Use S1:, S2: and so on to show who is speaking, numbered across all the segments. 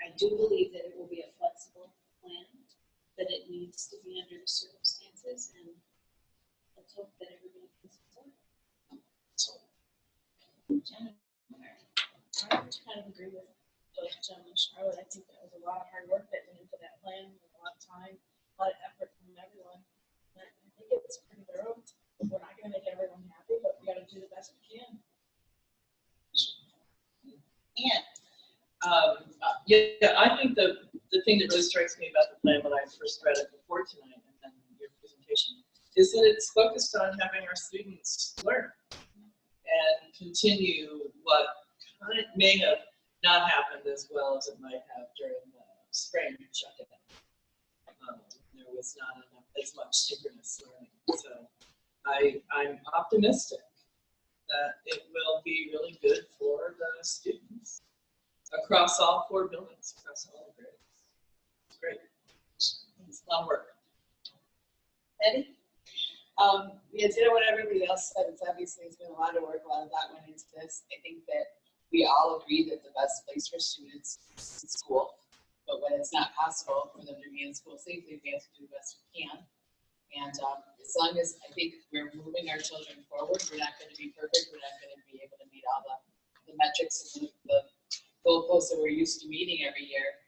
S1: I do believe that it will be a flexible plan, that it needs to be under the circumstances, and let's hope that everybody can support it. So,
S2: Jen, I kind of agree with both Jen and Charlotte. I think that was a lot of hard work that went into that plan, a lot of time, a lot of effort from everyone. And I think it's pretty thorough. We're not gonna make everyone happy, but we gotta do the best we can.
S3: And, um, uh, yeah, yeah, I think the, the thing that really strikes me about the plan when I first read it before tonight and then your presentation is that it's focused on having our students learn and continue what kind may have not happened as well as it might have during the spring shutdown. Um, There was not enough, as much synchronous learning, so I, I'm optimistic that it will be really good for the students across all four buildings, across all the grades. It's great. It's a lot of work.
S4: Betty? Um, yeah, to know what everybody else said, it's obviously, it's been a lot of work, a lot of thought went into this. I think that we all agree that the best place for students is school. But when it's not possible for them to be in school safely, we have to do the best we can. And, um, as long as, I think we're moving our children forward, we're not gonna be perfect, we're not gonna be able to meet all the, the metrics and the, the goalposts that we're used to meeting every year.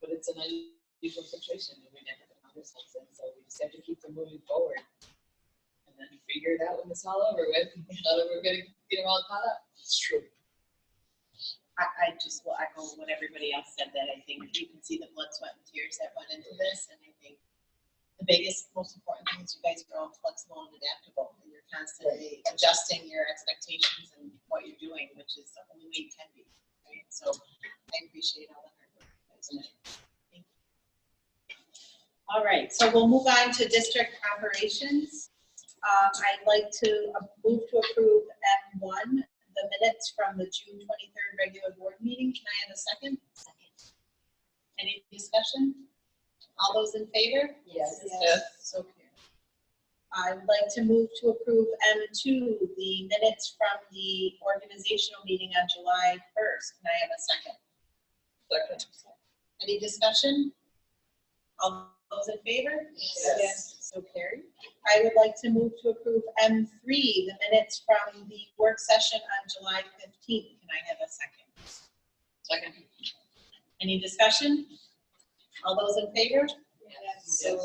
S4: But it's an unusual situation that we never found ourselves in, so we just have to keep them moving forward. And then figure it out when it's all over with, now that we're gonna get them all caught up.
S3: It's true.
S5: I, I just will echo what everybody else said, that I think you can see the blood, sweat, and tears that went into this, and I think the biggest, most important thing is you guys are all flexible and adaptable, and you're constantly adjusting your expectations and what you're doing, which is the only way you can be, right? So I appreciate all the hard work you guys did. Thank you. All right, so we'll move on to district operations. Um, I'd like to uh, move to approve M one, the minutes from the June twenty-third regular board meeting. Can I have a second? Any discussion? All those in favor?
S4: Yes.
S3: Yes.
S5: So carried. I would like to move to approve M two, the minutes from the organizational meeting on July first. Can I have a second?
S3: Second.
S5: Any discussion? All those in favor?
S3: Yes.
S5: So carried. I would like to move to approve M three, the minutes from the work session on July fifteenth. Can I have a second?
S4: Second.
S5: Any discussion? All those in favor? So carried.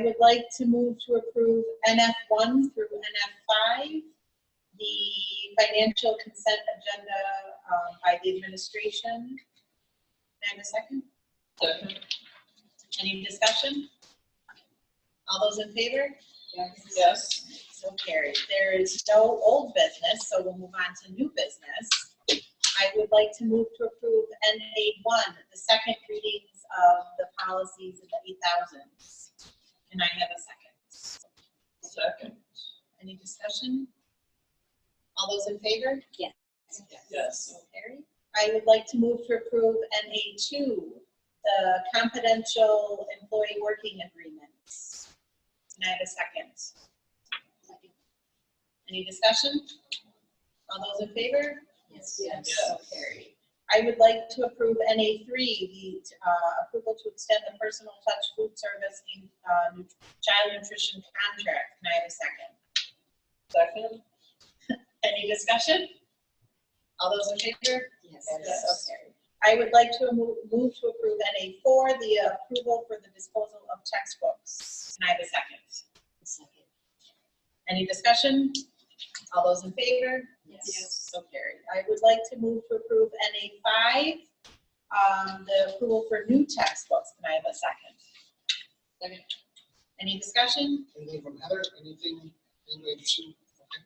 S5: I would like to move to approve NF one through NF five, the financial consent agenda um, by the administration. Can I have a second?
S3: Second.
S5: Any discussion? All those in favor?
S3: Yes.
S5: So carried. There is no old business, so we'll move on to new business. I would like to move to approve NA one, the second readings of the policies in the eight thousands. Can I have a second?
S3: Second.
S5: Any discussion? All those in favor?
S1: Yes.
S3: Yes.
S5: So carried. I would like to move to approve NA two, the confidential employee working agreements. Can I have a second? Any discussion? All those in favor? Yes. So
S3: Yes.
S5: carried. I would like to approve NA three, the uh, approval to extend the personal touch food service in uh, nut- child nutrition contract. Can I have a second?
S3: Second.
S5: Any discussion? All those in favor?
S3: Yes.
S5: So carried. I would like to move, move to approve NA four, the approval for the disposal of textbooks. Can I have a second? Any discussion? All those in favor?
S4: Yes.
S5: So carried. I would like to move to approve NA five, um, the approval for new textbooks. Can I have a second?
S4: Second.
S5: Any discussion?
S6: Anything from Heather, anything, anything interesting?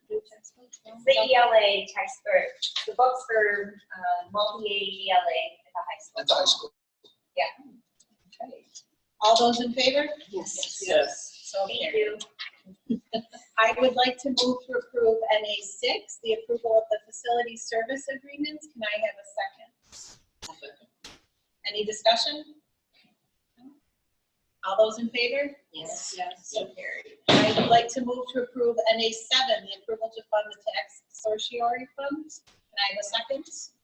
S7: The ELA text for, the books for uh, multi-age ELA at the high school.
S6: At the high school.
S5: Okay. All those in favor?
S1: Yes.
S3: Yes.
S5: So
S7: Thank
S5: carried.
S7: you.
S5: I would like to move to approve NA six, the approval of the facility service agreements. Can I have a second? Any discussion? All those in favor?
S1: Yes.
S5: So carried. I would like to move to approve NA seven, the approval to fund the tax sorority fund. Can I have a second?